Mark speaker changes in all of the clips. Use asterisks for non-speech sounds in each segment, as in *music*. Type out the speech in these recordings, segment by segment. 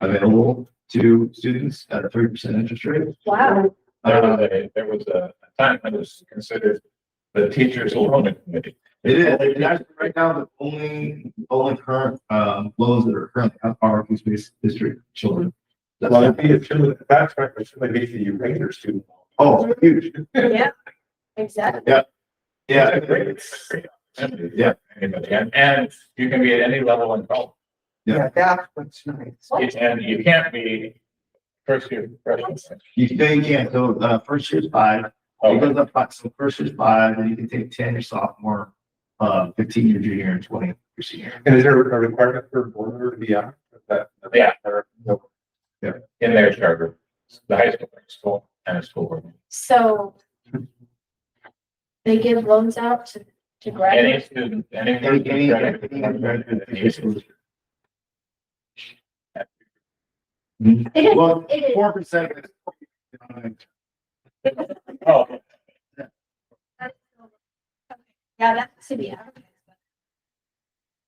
Speaker 1: available to students at a three percent interest rate.
Speaker 2: Wow.
Speaker 3: There was a, there was a time when it was considered the teachers loan committee.
Speaker 1: It is, and actually, right now, the only, only current, um, loans that are currently on are Food Space District children. That's
Speaker 3: Well,
Speaker 1: it.
Speaker 3: it'd be a children, that's right, but should be the Ranger student.
Speaker 1: Oh, huge,
Speaker 2: Yeah, exactly.
Speaker 1: yeah,
Speaker 3: It's a great- it's a great opportunity for
Speaker 1: Yeah.
Speaker 3: Anybody, and, and you can be at any level in college,
Speaker 1: Yeah.
Speaker 4: Yeah, that's what's nice.
Speaker 3: and you can't be first year freshman.
Speaker 1: you they can't, so, uh, first year's five, it
Speaker 3: Oh,
Speaker 1: goes up, five- so first year's five, and you can take ten your sophomore, uh, fifteen your junior and twenty your senior.
Speaker 5: And is there a requirement for a board member to be on? that?
Speaker 3: Yeah.
Speaker 5: No.
Speaker 3: In their charter, the high school, school, and a school board.
Speaker 2: So they give loans out to, to
Speaker 3: Any
Speaker 2: graduates.
Speaker 3: student, any.
Speaker 1: Any, any, any undergraduate in Food Space
Speaker 3: It's
Speaker 1: District.
Speaker 2: *laughs* It is,
Speaker 1: Well,
Speaker 2: it is.
Speaker 1: four percent.
Speaker 3: Oh,
Speaker 2: Yeah, that's to be advertised.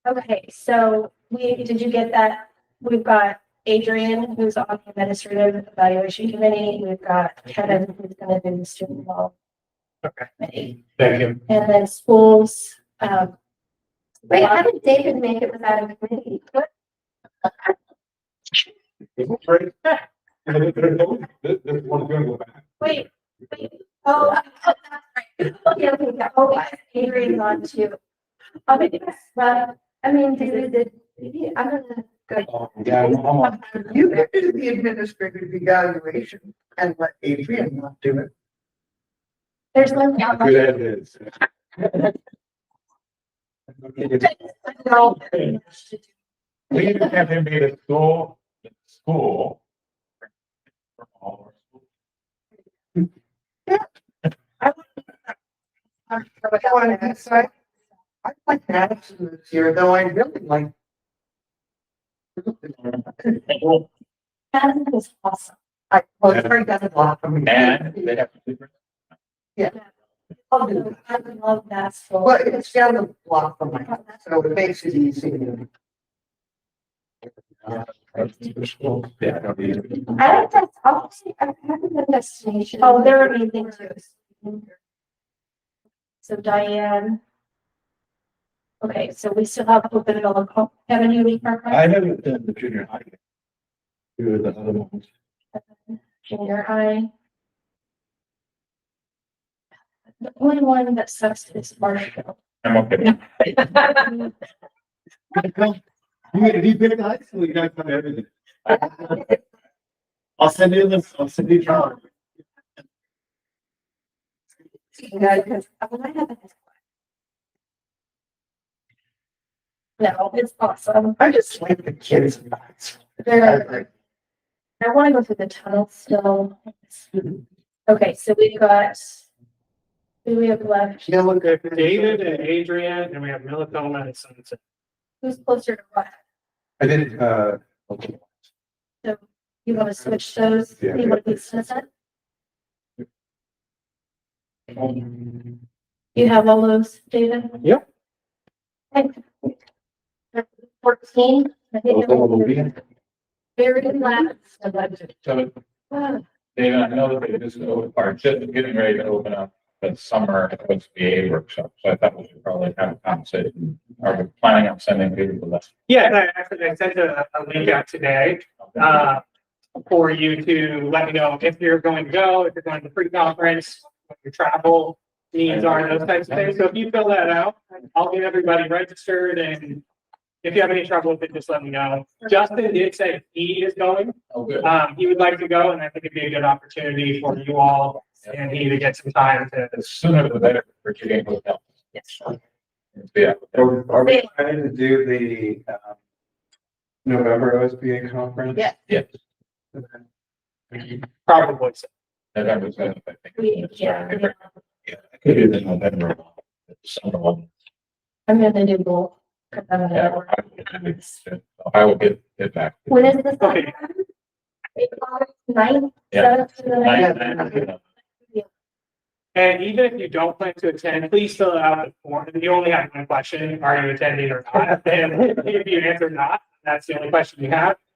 Speaker 2: Okay, so we, did you get that? We've got Adrian, who's on the administrative evaluation committee. We've got Kevin, who's gonna do the student loan. committee.
Speaker 3: thank you.
Speaker 2: And then schools, um,
Speaker 6: Wait, how did David make it without a committee?
Speaker 5: Isn't it great? This this one's gonna go back.
Speaker 2: wait, wait, oh, oh, that's right. Okay, okay, yeah, oh, yeah, Adrian's on um, too.
Speaker 6: Oh, yes, well, I mean, did, did, did- I'm gonna go.
Speaker 5: Oh, Yeah, I'm I'm on.
Speaker 4: You could do the administrative evaluation and let Adrian not do it.
Speaker 2: There's no. doubt.
Speaker 5: Good as is.
Speaker 3: We even have him be the school, the school. for all our schools.
Speaker 4: But on that side, I like Madison this year, though I really like.
Speaker 2: That was awesome.
Speaker 4: I, well, it's very doesn't block from me.
Speaker 3: And they have to.
Speaker 2: Oh, no, I love that school.
Speaker 4: But it's down the block from my house, so it makes it easy.
Speaker 3: Yeah, that'd be-
Speaker 6: I like that, obviously, I'm having a destination.
Speaker 2: Oh, there are amazing too. So Diane. Okay, so we still have open enrollment, have a new
Speaker 5: I
Speaker 2: program,
Speaker 5: haven't done the junior high. yet. Two of the other ones.
Speaker 2: junior high. The only one that sucks is Marshall. *laughs*
Speaker 3: I'm okay.
Speaker 1: You mean, if you pick the high school, you gotta cover everything. I'll send you this, I'll send you. John.
Speaker 6: Yeah, because I mean, I haven't.
Speaker 2: No, it's awesome.
Speaker 4: I just like the kids. in Madison.
Speaker 2: They're-
Speaker 4: I-
Speaker 2: I want to go through the tunnel still. Okay, so we've got. Who we have left?
Speaker 4: Yeah, look, I-
Speaker 7: David and Adrian, and we have Millicoma and Sunset.
Speaker 2: Who's closer to what?
Speaker 5: I did, uh. okay.
Speaker 2: You want to switch those?
Speaker 5: Yeah.
Speaker 2: You want to be Sunset? You have all those, David?
Speaker 7: Yeah.
Speaker 2: Fourteen. I think it
Speaker 5: Those will
Speaker 2: was
Speaker 5: be in.
Speaker 2: Very last.
Speaker 3: So,
Speaker 2: Wow.
Speaker 3: David, I know that they just o- are just getting ready to open up the summer OSBA workshop, so I thought we should probably have a conversation. Are we planning on sending people that?
Speaker 7: Yeah, and I actually, I sent a, a link out today, uh, for you to let me know if you're going to go, if you're going to pre-conference, what your travel needs are, those types of things. So if you fill that out, I'll get everybody registered and if you have any trouble with it, just let me know. Justin did say he is going.
Speaker 3: Oh, good.
Speaker 7: Um, he would like to go and I think it'd be a good opportunity for you all and he to get some time to
Speaker 3: The sooner the better for getting hotel.
Speaker 2: Yes.
Speaker 3: Yeah.
Speaker 5: Are are we planning to do the, um, November OSBA conference?
Speaker 2: Yeah.
Speaker 3: Yes.
Speaker 7: probably
Speaker 3: That was, uh, I
Speaker 2: We,
Speaker 3: think.
Speaker 2: yeah, yeah.
Speaker 3: Yeah, I could do the November one, the summer one.
Speaker 2: I'm gonna do both. 'cause I'm gonna
Speaker 3: Yeah,
Speaker 2: work
Speaker 3: I would- I
Speaker 2: on
Speaker 3: would-
Speaker 2: this.
Speaker 3: I will get it back.
Speaker 6: When is this?
Speaker 7: Okay.
Speaker 6: Ninth,
Speaker 3: Yeah.
Speaker 6: seventh to the ninth?
Speaker 3: Nine- nine-
Speaker 7: And even if you don't plan to attend, please fill out the form. You only *laughs* have one question, are you attending or not? And if you answer not, that's the only question you have.